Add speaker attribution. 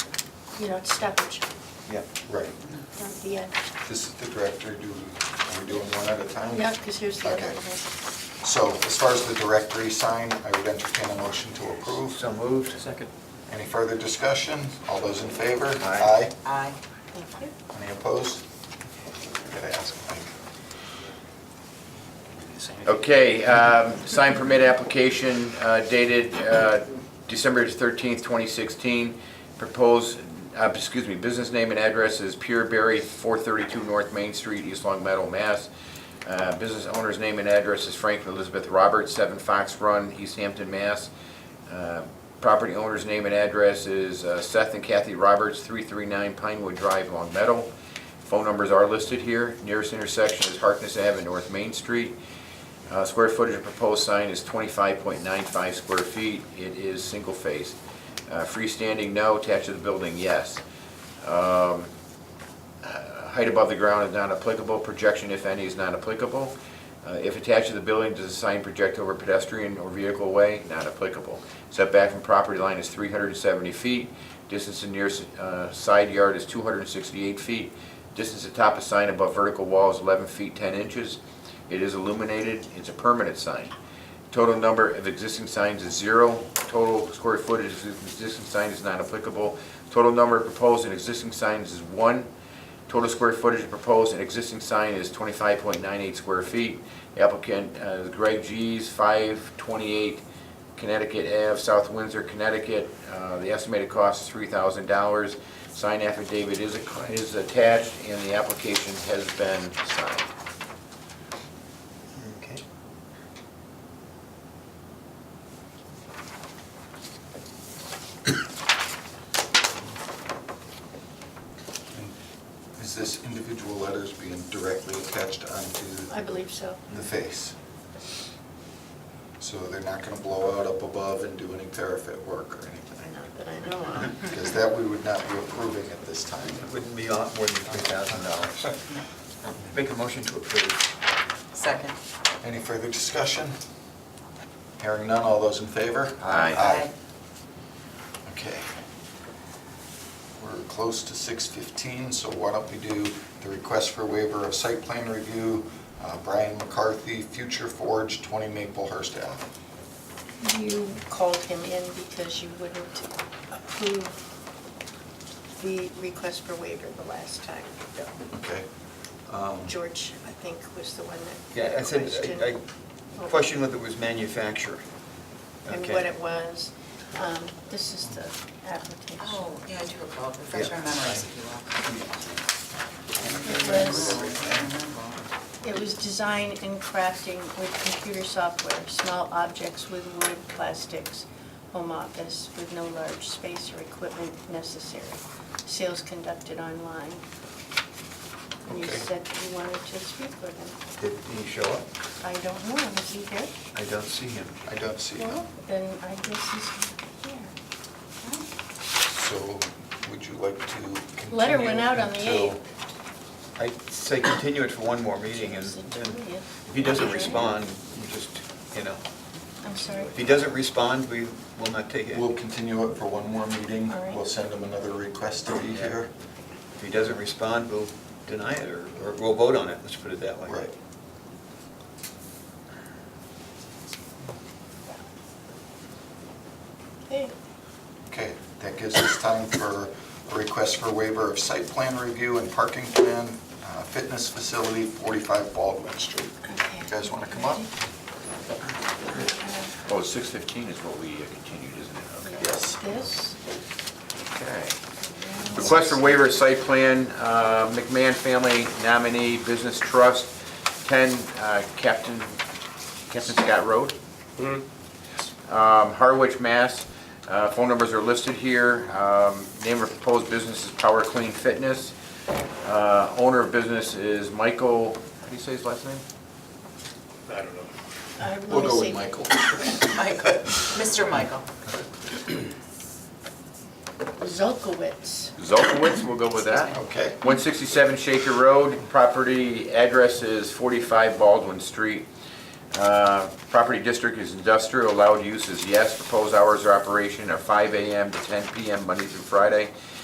Speaker 1: you know, it's stoppage,
Speaker 2: Yeah, right.
Speaker 1: not the end.
Speaker 2: This is the directory, do, are we doing one at a time?
Speaker 1: Yeah, because here's the other
Speaker 2: Okay.
Speaker 1: one.
Speaker 2: So as far as the directory sign, I would entertain a motion to approve.
Speaker 3: So moved. Second.
Speaker 2: Any further discussion? All those in favor?
Speaker 3: Aye.
Speaker 4: Aye.
Speaker 1: Thank you.
Speaker 2: Aye. Any opposed? Gotta ask Mike.
Speaker 3: Okay, um, sign permit application uh, dated uh, December 13th, 2016. Proposed, uh, excuse me, business name and address is Pure Berry, 432 North Main Street, East Long Meadow, Mass. Uh, Business owner's name and address is Frank and Elizabeth Roberts, 7 Fox Run, East Hampton, Mass. Uh, Property owner's name and address is uh, Seth and Kathy Roberts, 339 Pinewood Drive, Long Meadow. Phone numbers are listed here. Nearest intersection is Harkness Avenue, North Main Street. Uh, Square footage of proposed sign is 25.95 square feet. It is single phase. Uh, Freestanding, no. Attached to the building, yes. Um, uh, Height above the ground is not applicable. Projection, if any, is not applicable. Uh, If attached to the building, does the sign project over pedestrian or vehicle way? Not applicable. Setback from property line is 370 feet. Distance to nearest uh, side yard is 268 feet. Distance to top of sign above vertical wall is 11 feet 10 inches. It is illuminated, it's a permanent sign. Total number of existing signs is zero. Total square footage of existing sign is not applicable. Total number of proposed and existing signs is one. Total square footage of proposed and existing sign is 25.98 square feet. Applicant uh, Greg G's, 528 Connecticut Ave, South Windsor, Connecticut. Uh, The estimated cost is $3,000. Sign affidavit is a- is attached, and the application has been signed.
Speaker 2: Okay. Is this individual letters being directly attached
Speaker 1: I
Speaker 2: onto
Speaker 1: believe so.
Speaker 2: the face? So they're not gonna blow out up above and do any parapet work or anything?
Speaker 1: Not that I know
Speaker 5: uh,
Speaker 1: of.
Speaker 2: Because that we would not be approving at this time.
Speaker 5: It wouldn't be a lot more than $3,000. Make a motion to approve.
Speaker 4: Second.
Speaker 2: Any further discussion? Hearing none, all those in favor?
Speaker 3: Aye.
Speaker 2: Okay. We're close to 6:15, so why don't we do the request for waiver of site plan review, uh, Brian McCarthy, Future Forge, 20 Maplehurst Ave.
Speaker 1: You called him in because you wouldn't approve the request for waiver the last time.
Speaker 2: Okay? Um,
Speaker 1: George, I think, was the one
Speaker 5: Yeah, I
Speaker 1: that
Speaker 5: said,
Speaker 1: questioned. Oh.
Speaker 5: I I questioned whether it was manufacturing.
Speaker 1: And
Speaker 5: Okay.
Speaker 1: what it was. Um, This is the application.
Speaker 4: Oh, yeah, I do recall, refresh our
Speaker 5: Yeah.
Speaker 4: memories if you will.
Speaker 1: It was- It was design and crafting with computer software, small objects with wood, plastics, home office with no large space or equipment necessary. Sales conducted online. And you
Speaker 2: Okay.
Speaker 1: said you wanted to speak with him.
Speaker 5: Did he show up?
Speaker 1: I don't know, is he here?
Speaker 5: I don't see him.
Speaker 2: I don't see
Speaker 1: Well,
Speaker 2: them.
Speaker 1: Then I guess he's here.
Speaker 2: So would you like to continue?
Speaker 1: Letter went out on the
Speaker 2: until-
Speaker 1: 8th.
Speaker 5: I'd say continue it for one more meeting, and
Speaker 1: It's the
Speaker 5: and
Speaker 1: 20th.
Speaker 5: if he doesn't respond, we just, you know,
Speaker 1: I'm sorry.
Speaker 5: if he doesn't respond, we will not take it.
Speaker 2: We'll continue it for one more meeting.
Speaker 1: All right.
Speaker 2: We'll send him another request to be
Speaker 5: Yeah.
Speaker 2: here.
Speaker 5: If he doesn't respond, we'll deny it, or or we'll vote on it, let's put it that way.
Speaker 2: Right.
Speaker 1: Hey,
Speaker 2: Okay, that gives us time for a request for waiver of site plan review and parking plan, uh, fitness facility, 45 Baldwin Street.
Speaker 1: okay.
Speaker 2: You guys want to come up?
Speaker 3: Oh, 6:15 is what we uh, continued, isn't it? Okay.
Speaker 2: Yes.
Speaker 1: This.
Speaker 3: Okay. Request for waiver of site plan, uh, McMahon Family Nominee Business Trust, 10 uh, Captain, Captain Scott Road. Um, Harwich, Mass. Uh, Phone numbers are listed here. Um, Name of proposed business is Power Clean Fitness. Uh, Owner of business is Michael, how do you say his last name?
Speaker 6: I don't know.
Speaker 1: I will
Speaker 2: We'll go
Speaker 1: see.
Speaker 2: with Michael.
Speaker 4: Michael, Mr. Michael.
Speaker 1: Zolkowitz.
Speaker 3: Zolkowitz, we'll go with that.
Speaker 2: Okay.
Speaker 3: 167 Shaker Road, property address is 45 Baldwin Street. Uh, Property district is industrial, allowed use is yes, proposed hours of operation are 5 AM to 10 PM, Monday through Friday.